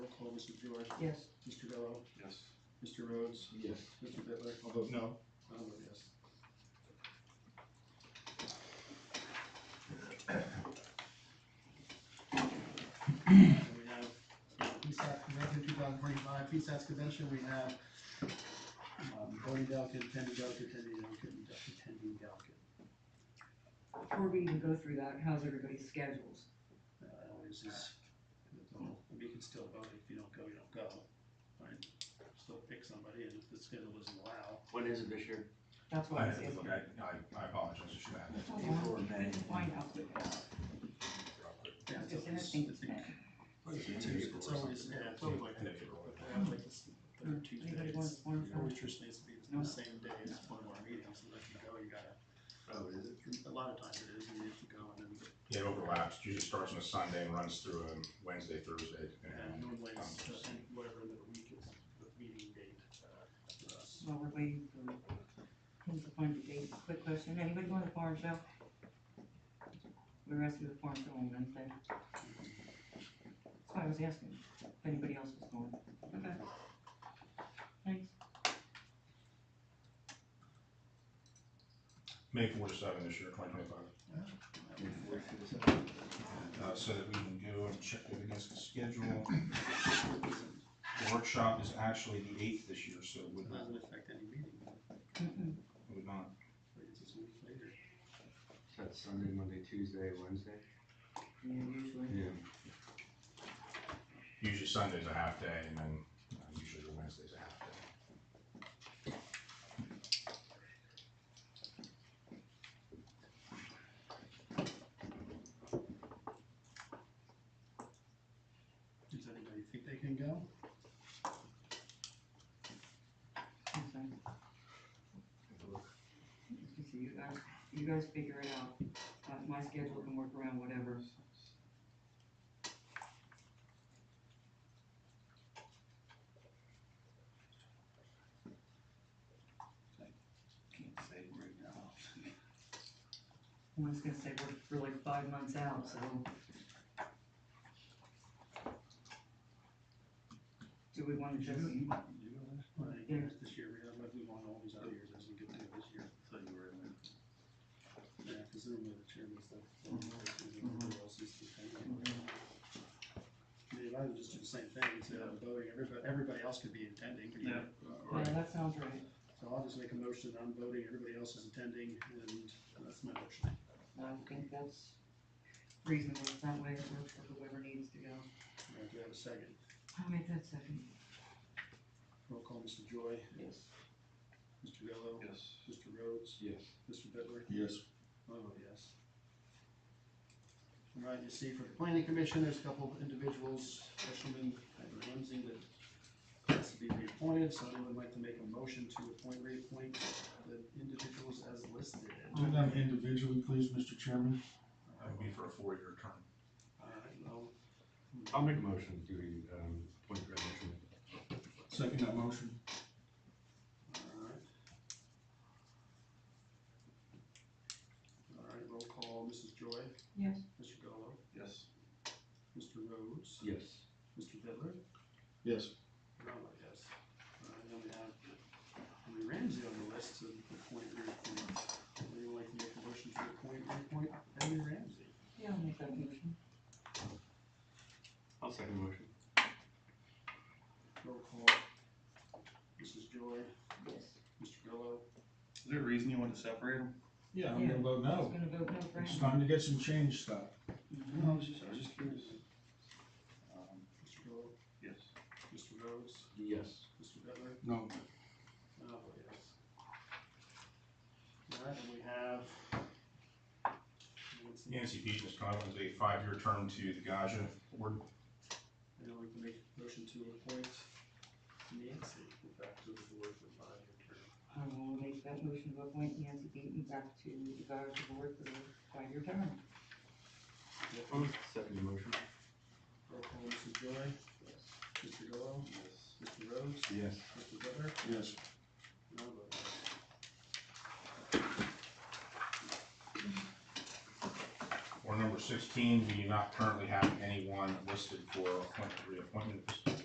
Mrs. George, Yes. Mr. Gallow, Yes. Mr. Rhodes, Yes. Mr. Bitler, I'll vote no. I'll vote yes. And we have PSAC Convention two thousand twenty-five, PSAC Convention, we have um, voting delegate, attending delegate, attending delegate, and attending delegate. Before we even go through that, how's everybody's schedules? Uh, That always is, you can still vote, if you don't go, you don't go. Right? Still pick somebody, and if the schedule doesn't allow, When is it this year? That's I, what I was I, I apologize, I should have. April or May? Find out. Yeah, it's It's always, interesting. I think, What is it, it's Tuesday or it's always, something? yeah, it's always like In that. April, I Yeah, like this third Tuesday, Anybody want it's, to form it always just needs to be the same day as one of our meetings, and if you go, you gotta, Oh, is it? a lot of times it is, you have to go, and then, It overlaps, usually starts on a Sunday and runs through um, Wednesday, Thursday. and and- normally it's, uh, whatever the week is, the meeting date, uh, for us. While we're waiting for him to find the date, quick question, anybody going to the farm show? We're asking the farm show on Wednesday. That's why I was asking if anybody else was going. Okay. Thanks. May four to seven this year, twenty twenty-five. Uh, so that we can go and check it against the schedule. The workshop is actually the eighth this year, so it It would not, doesn't affect any meeting, Mm-mm. it would not. it's just a week later. So that's Sunday, Monday, Tuesday, Wednesday? Yeah, usually. Yeah. Usually Sunday's a half day and then uh, usually the Wednesday's a half day. Does anybody think they can go? I'm sorry. So you guys, you guys figure it out, uh, my schedule can work around whatever. Can't say right now. One's gonna say we're, we're like five months out, so. Do we wanna just, Right, Yeah. years this year, we have, like, we want all these other years, as we get to this year. So you were in there. Yeah, cause normally the chairman's the, everybody else is the thing. Maybe I would just do the same thing, instead of voting, everybody, everybody else could be attending. Yeah. yeah, that sounds right, So I'll just make a motion, that I'm voting, everybody else is attending, and that's my motion. I think that's reasonable, It's that way it works for whoever needs to go. All right, Do I have a second? I'll make that second. Roll call, Mr. Joy, Yes. Mr. Gallow, Yes. Mr. Rhodes, Yes. Mr. Bitler. Yes. Oh, yes. All right, you see, for the planning commission, there's a couple of individuals, Eshelman and Ramsey, that has to be reappointed, so I would like to make a motion to appoint, reappoint the individuals as listed. Uh, Do them individually, please, Mr. Chairman. That would be for a four-year term. All right, well, I'll make a motion to, um, point of motion. Second that motion. all right. All right, roll call, Mrs. Joy, Yes. Mr. Gallow, Yes. Mr. Rhodes, Yes. Mr. Bittler, Yes. No, yes. Uh, and then we have Henry Ramsey on the list to appoint, reappoint. Would you like to make a motion to appoint, reappoint Henry Ramsey? Yeah, I'll make that motion. I'll second motion. Roll call. Mrs. Joy, Yes. Mr. Gallow. Is there a reason you want to separate them? Yeah, I'm gonna vote I was no. gonna vote no for It's him. time to get some change stuff. Mhm. No, I was just, I was just curious. Um, Mr. Gallow, Yes. Mr. Rhodes, Yes. Mr. Butler. No. Oh, yes. All right, and we have. Nancy. Nancy Pete is Conlon's a five-year term to the Gaja Board. And then we can make a motion to appoint Nancy back to the board for five-year term. I will make that motion to appoint Nancy Beaton back to the Guards Board for the five-year term. I'll second the motion. Roll call, Mrs. Joy, Yes. Mr. Gallow, Yes. Mr. Rhodes, Yes. Mr. Bittler, Yes. and I'll vote yes. Or number sixteen, we do not currently have anyone listed for appointment, reappointment at this time.